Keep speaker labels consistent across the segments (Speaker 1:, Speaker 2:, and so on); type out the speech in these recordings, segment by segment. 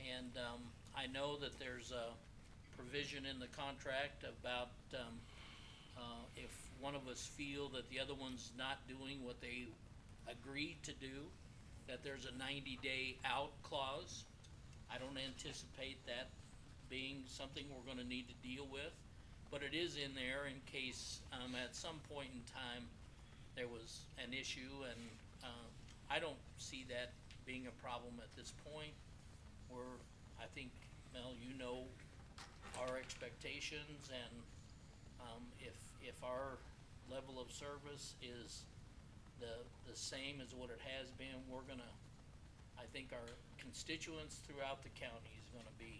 Speaker 1: And, um, I know that there's a provision in the contract about, um, uh, if one of us feel that the other one's not doing what they agreed to do, that there's a ninety-day out clause. I don't anticipate that being something we're gonna need to deal with, but it is in there in case, um, at some point in time, there was an issue, and, uh, I don't see that being a problem at this point. We're, I think, Mel, you know our expectations, and, um, if, if our level of service is the, the same as what it has been, we're gonna, I think our constituents throughout the county is gonna be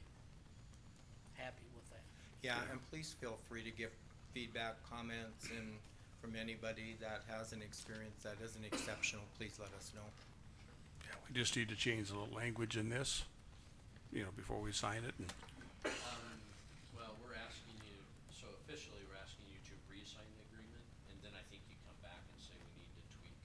Speaker 1: happy with that.
Speaker 2: Yeah, and please feel free to give feedback, comments, and from anybody that has an experience that isn't exceptional, please let us know.
Speaker 3: Yeah, we just need to change the language in this, you know, before we sign it and
Speaker 4: Um, well, we're asking you, so officially, we're asking you to re-sign the agreement, and then I think you come back and say we need to tweak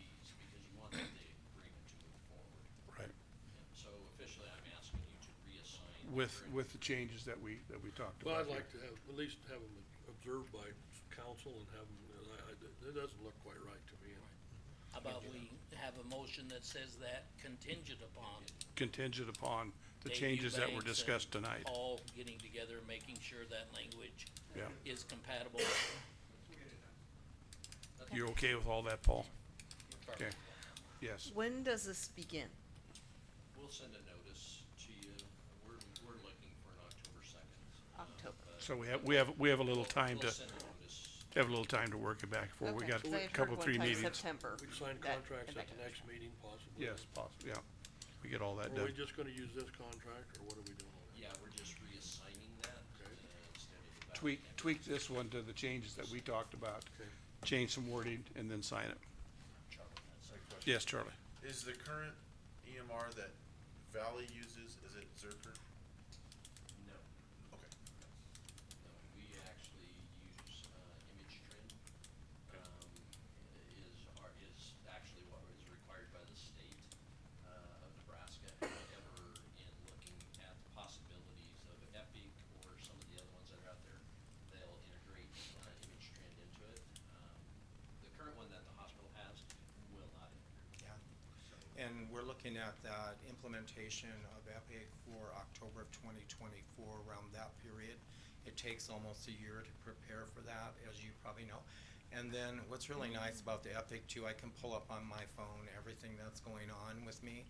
Speaker 4: these, because you want the agreement to move forward.
Speaker 3: Right.
Speaker 4: And so officially, I'm asking you to reassign. the
Speaker 3: With,
Speaker 4: agreement.
Speaker 3: with the changes that we, that we talked
Speaker 5: Well,
Speaker 3: about
Speaker 5: I'd
Speaker 3: here.
Speaker 5: like to have, at least have them observed by council and have them, I, I, it doesn't look quite right to me.
Speaker 1: How about we have a motion that says that contingent upon
Speaker 3: Contingent upon the
Speaker 1: Dave
Speaker 3: changes that were
Speaker 1: Eubanks and
Speaker 3: discussed tonight.
Speaker 1: All getting together, and making sure that language
Speaker 3: Yeah.
Speaker 1: is compatible.
Speaker 3: You're okay with all that, Paul? Okay. Yes.
Speaker 6: When does this begin?
Speaker 4: We'll send a notice to you, we're, we're looking for an October second.
Speaker 6: October.
Speaker 3: So we have, we have, we have a little time to,
Speaker 4: We'll send a notice,
Speaker 3: have a little time to work it back for. We
Speaker 6: Okay,
Speaker 3: got
Speaker 6: 'cause I
Speaker 3: a
Speaker 6: had
Speaker 3: couple,
Speaker 6: heard one
Speaker 3: three
Speaker 6: time
Speaker 3: meetings.
Speaker 6: September.
Speaker 5: We can sign
Speaker 6: That-
Speaker 5: contracts
Speaker 6: and
Speaker 5: at
Speaker 6: that
Speaker 5: the
Speaker 6: kind of-
Speaker 5: next meeting possibly.
Speaker 3: Yes, possible, yeah. We get all that
Speaker 5: Are
Speaker 3: done.
Speaker 5: we just gonna use this contract, or what are we doing on that?
Speaker 4: yeah, we're just reassigning that, uh,
Speaker 5: Okay.
Speaker 4: instead of. the back
Speaker 3: Tweak,
Speaker 4: end.
Speaker 3: tweak this one to the changes that we talked about.
Speaker 5: Okay.
Speaker 3: Change some wording and then sign it.
Speaker 7: A question.
Speaker 3: Yes, Charlie?
Speaker 7: Is the current EMR that Valley uses, is it Zerker?
Speaker 4: No.
Speaker 7: Okay.
Speaker 4: No, we actually use, uh, image trend, um, is, are, is actually what is required by the state, uh, of Nebraska. However, in looking at the possibilities of Epic or some of the other ones that are out there, they'll integrate, uh, image trend into it. Um, The current one that the hospital has will not integrate.
Speaker 2: Yeah.
Speaker 4: So,
Speaker 2: And we're looking at that implementation of Epic for October of twenty twenty-four, around that period. It takes almost a year to prepare for that, as you probably know. And then what's really nice about the Epic too, I can pull up on my phone everything that's going on with me.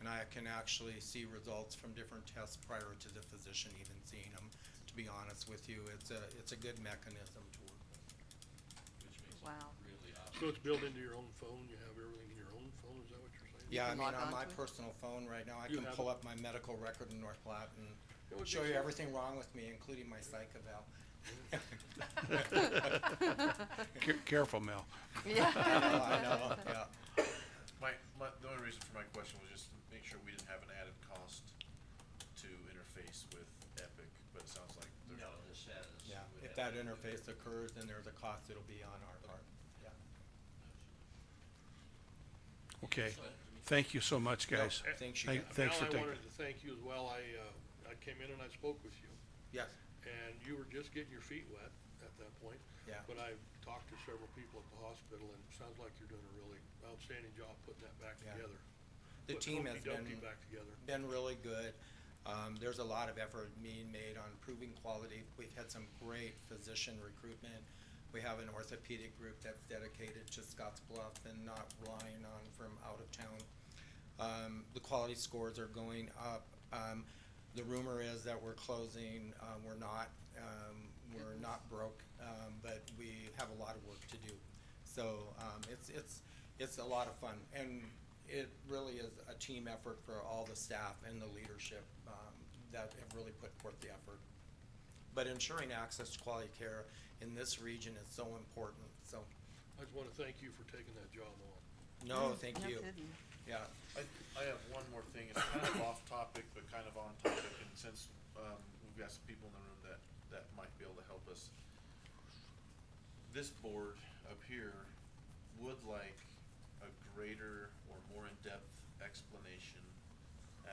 Speaker 2: And I can actually see results from different tests prior to the physician even seeing them, to be honest with you. It's a, it's a good mechanism to work with.
Speaker 4: Which makes it
Speaker 6: Wow.
Speaker 4: really uh,
Speaker 5: So
Speaker 4: obvious.
Speaker 5: it's built into your own phone, you have everything in your own phone, is that what you're saying?
Speaker 2: Yeah, I
Speaker 6: can
Speaker 2: mean,
Speaker 6: log
Speaker 2: on
Speaker 6: on
Speaker 2: my
Speaker 6: to it?
Speaker 2: personal phone right now, I
Speaker 5: You
Speaker 2: can
Speaker 5: have
Speaker 2: pull
Speaker 5: it.
Speaker 2: up my medical record in North Platte
Speaker 5: It
Speaker 2: and
Speaker 5: would
Speaker 2: show
Speaker 5: be
Speaker 2: you
Speaker 5: so-
Speaker 2: everything wrong with me, including my psych eval. Oh,
Speaker 3: Care- Careful, Mel.
Speaker 6: Yeah.
Speaker 2: I know, yeah.
Speaker 7: My, my, the only reason for my question was just to make sure we didn't have an added cost to interface with Epic, but it sounds like there's.
Speaker 4: No, this has.
Speaker 2: Yeah,
Speaker 4: would
Speaker 2: if
Speaker 4: have
Speaker 2: that
Speaker 4: to do
Speaker 2: interface
Speaker 4: with-
Speaker 2: occurs, then there's a cost, it'll be on our part, yeah.
Speaker 3: Okay. Thank you so much, guys.
Speaker 2: No, Thanks, you
Speaker 3: Thank-
Speaker 2: guys.
Speaker 3: Thanks for
Speaker 5: Al, I
Speaker 3: taking.
Speaker 5: wanted to thank you as well, I, uh, I came in and I spoke with you.
Speaker 2: Yes,
Speaker 5: and you were just getting your feet wet at that point.
Speaker 2: Yeah.
Speaker 5: But I've talked to several people at the hospital, and it sounds like you're doing a really outstanding job putting that back
Speaker 2: Yeah.
Speaker 5: together.
Speaker 2: the
Speaker 5: Putting
Speaker 2: team has
Speaker 5: Humpty Dumpty
Speaker 2: been,
Speaker 5: back together.
Speaker 2: been really good. Um, there's a lot of effort being made on improving quality. We've had some great physician recruitment. We have an orthopedic group that's dedicated to Scotts Bluff and not relying on from out of town. Um, the quality scores are going up. Um, the rumor is that we're closing, um, we're not, um, we're not broke, um, but we have a lot of work to do. So, um, it's, it's, it's a lot of fun, and it really is a team effort for all the staff and the leadership, um, that have really put forth the effort. But ensuring access to quality care in this region is so important, so,
Speaker 5: I just wanna thank you for taking that job on.
Speaker 2: no, Oh, thank
Speaker 6: No
Speaker 2: you,
Speaker 6: kidding.
Speaker 2: yeah.
Speaker 7: I, I have one more thing, it's kind of off topic, but kind of on topic, and since, um, we've got some people in the room that, that might be able to help us. This board up here would like a greater or more in-depth explanation